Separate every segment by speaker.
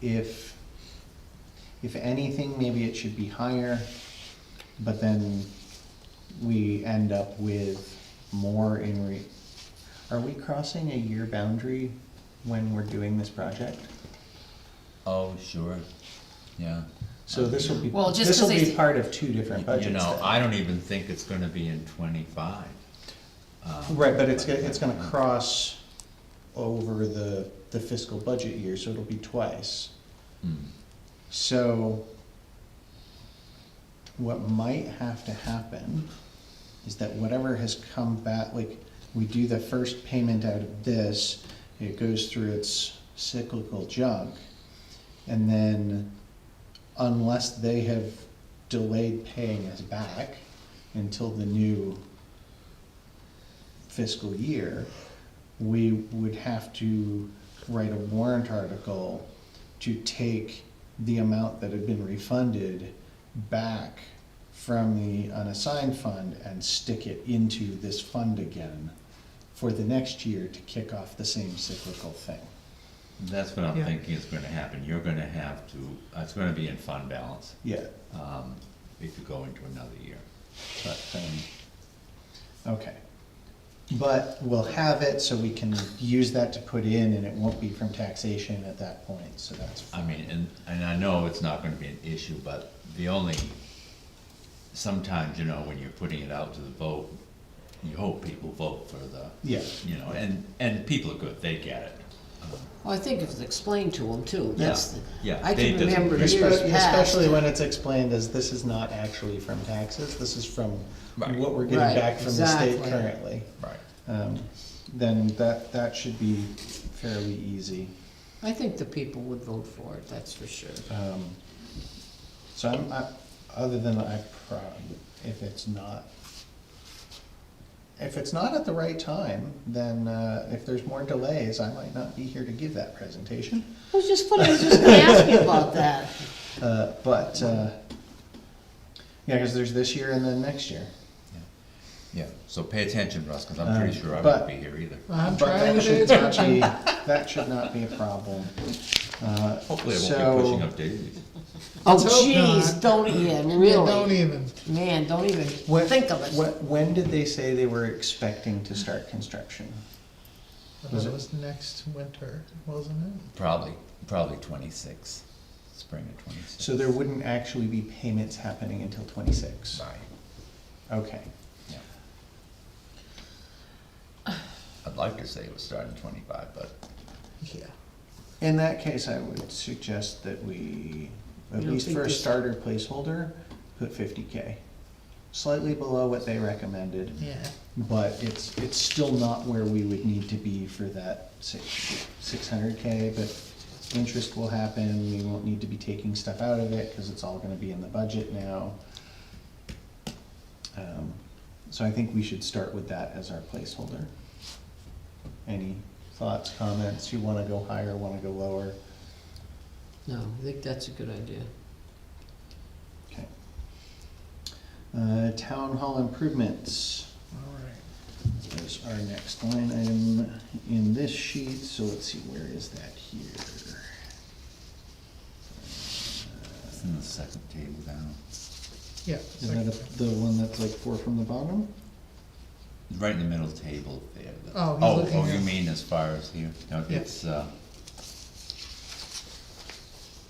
Speaker 1: if, if anything, maybe it should be higher, but then we end up with more in re, are we crossing a year boundary when we're doing this project?
Speaker 2: Oh, sure, yeah.
Speaker 1: So this will be,
Speaker 3: Well, just
Speaker 1: this will
Speaker 3: 'cause
Speaker 1: be
Speaker 3: they-
Speaker 1: part of two different budgets.
Speaker 2: You know,
Speaker 1: then.
Speaker 2: I don't even think it's gonna be in twenty-five. Um, uh,
Speaker 1: Right, but it's, go- it's gonna cross over the, the fiscal budget year, so it'll be twice.
Speaker 2: Mm.
Speaker 1: So what might have to happen is that whatever has come back, like, we do the first payment out of this, it goes through its cyclical junk. And then unless they have delayed paying us back until the new fiscal year, we would have to write a warrant article to take the amount that had been refunded back from the unassigned fund and stick it into this fund again for the next year to kick off the same cyclical thing.
Speaker 2: That's what I'm
Speaker 3: Yeah.
Speaker 2: thinking is gonna happen, you're gonna have to, uh, it's gonna be in fund balance,
Speaker 1: Yeah,
Speaker 2: um, if you go into another year.
Speaker 1: but, um, okay. But we'll have it so we can use that to put in and it won't be from taxation at that point, so that's.
Speaker 2: I mean, and, and I know it's not gonna be an issue, but the only, sometimes, you know, when you're putting it out to the vote, you hope people vote for the,
Speaker 1: Yeah.
Speaker 2: you know, and, and people are good, they get it. Um,
Speaker 3: Well, I think if it's explained to them too, that's, the-
Speaker 2: Yeah, yeah,
Speaker 3: I
Speaker 2: they
Speaker 3: can
Speaker 2: doesn't-
Speaker 3: remember years past.
Speaker 1: Especially, especially when it's explained as this is not actually from taxes, this is from
Speaker 2: Right.
Speaker 1: what we're getting
Speaker 3: Right,
Speaker 1: back from the state
Speaker 3: exactly.
Speaker 1: currently.
Speaker 2: Right.
Speaker 1: Um, then that, that should be fairly easy.
Speaker 3: I think the people would vote for it, that's for sure.
Speaker 1: Um, so I'm, I, other than I prob, if it's not, if it's not at the right time, then, uh, if there's more delays, I might not be here to give that presentation.
Speaker 3: I was just, I was just gonna ask you about that.
Speaker 1: Uh, but, uh, yeah, cause there's this year and then next year.
Speaker 2: Yeah, so pay attention, Russ, because I'm pretty
Speaker 1: Um,
Speaker 2: sure I
Speaker 1: but-
Speaker 2: won't be here either.
Speaker 1: But that should not be, that should not be a problem. Uh,
Speaker 2: Hopefully, I
Speaker 1: so-
Speaker 2: won't be pushing up daisies.
Speaker 3: Oh,
Speaker 4: Let's hope
Speaker 3: jeez,
Speaker 4: not.
Speaker 3: don't even,
Speaker 4: Yeah, Don't
Speaker 3: really,
Speaker 4: even.
Speaker 3: man, don't even
Speaker 1: When-
Speaker 3: think of it.
Speaker 1: When, when did they say they were expecting to start construction?
Speaker 4: I
Speaker 1: Was
Speaker 4: thought
Speaker 1: it-
Speaker 4: it was next winter, wasn't it?
Speaker 2: Probably, probably twenty-six, spring of twenty-six.
Speaker 1: So there wouldn't actually be payments happening until twenty-six?
Speaker 2: Right,
Speaker 1: Okay,
Speaker 2: yeah. I'd like to say it was starting twenty-five, but
Speaker 4: Yeah.
Speaker 1: in that case, I would suggest that we, at
Speaker 3: You don't
Speaker 1: least
Speaker 3: think
Speaker 1: for a
Speaker 3: this-
Speaker 1: starter placeholder, put fifty K. Slightly below what they recommended,
Speaker 4: Yeah.
Speaker 1: but it's, it's still not where we would need to be for that six, six hundred K, but interest will happen, we won't need to be taking stuff out of it, cause it's all gonna be in the budget now. Um, So I think we should start with that as our placeholder. Any thoughts, comments, you wanna go higher, wanna go lower?
Speaker 3: No, I think that's a good idea.
Speaker 1: Okay. Uh, town hall improvements.
Speaker 4: All right.
Speaker 1: There's our next line item in this sheet, so let's see, where is that here?
Speaker 2: it's in the second table down.
Speaker 4: Yeah.
Speaker 1: Is that
Speaker 4: second.
Speaker 1: the one that's like four from the bottom?
Speaker 2: Right in the middle table there. the-
Speaker 4: Oh, he's
Speaker 2: Oh,
Speaker 4: looking
Speaker 2: oh, you
Speaker 4: at-
Speaker 2: mean as far as here, no,
Speaker 4: Yeah.
Speaker 2: it's, uh,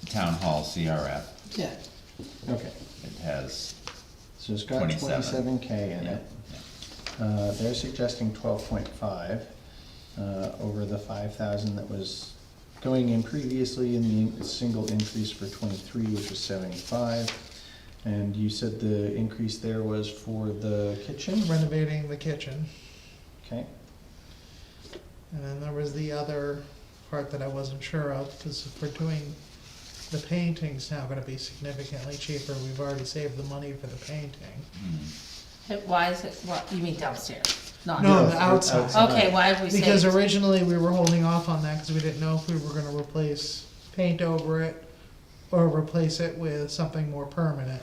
Speaker 2: Town Hall CRF,
Speaker 3: Yeah.
Speaker 1: Okay,
Speaker 2: it has,
Speaker 1: so it's got
Speaker 2: 27.
Speaker 1: twenty-seven K in
Speaker 2: yeah,
Speaker 1: it.
Speaker 2: yeah.
Speaker 1: Uh, they're suggesting twelve point five, uh, over the five thousand that was going in previously in the single increase for twenty-three, which was seventy-five. And you said the increase there was for the kitchen,
Speaker 4: Renovating the kitchen,
Speaker 1: okay?
Speaker 4: and then there was the other part that I wasn't sure of, because if we're doing, the painting's now gonna be significantly cheaper, we've already saved the money for the painting.
Speaker 2: Mm.
Speaker 5: Why is it, what, you mean downstairs? Not,
Speaker 4: No, the
Speaker 1: for
Speaker 4: outside.
Speaker 5: okay, why have we
Speaker 4: Because
Speaker 5: saved?
Speaker 4: originally we were holding off on that because we didn't know if we were gonna replace paint over it or replace it with something more permanent,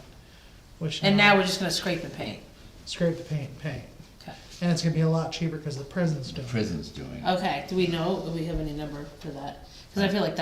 Speaker 4: which.
Speaker 5: And now we're just gonna scrape the paint,
Speaker 4: Scrape the paint, and paint.
Speaker 5: okay.
Speaker 4: And it's gonna be a lot cheaper because the prison's
Speaker 2: The
Speaker 4: doing it.
Speaker 2: prison's doing it.
Speaker 5: Okay, do we know, do we have any number for that? Cause I feel like that's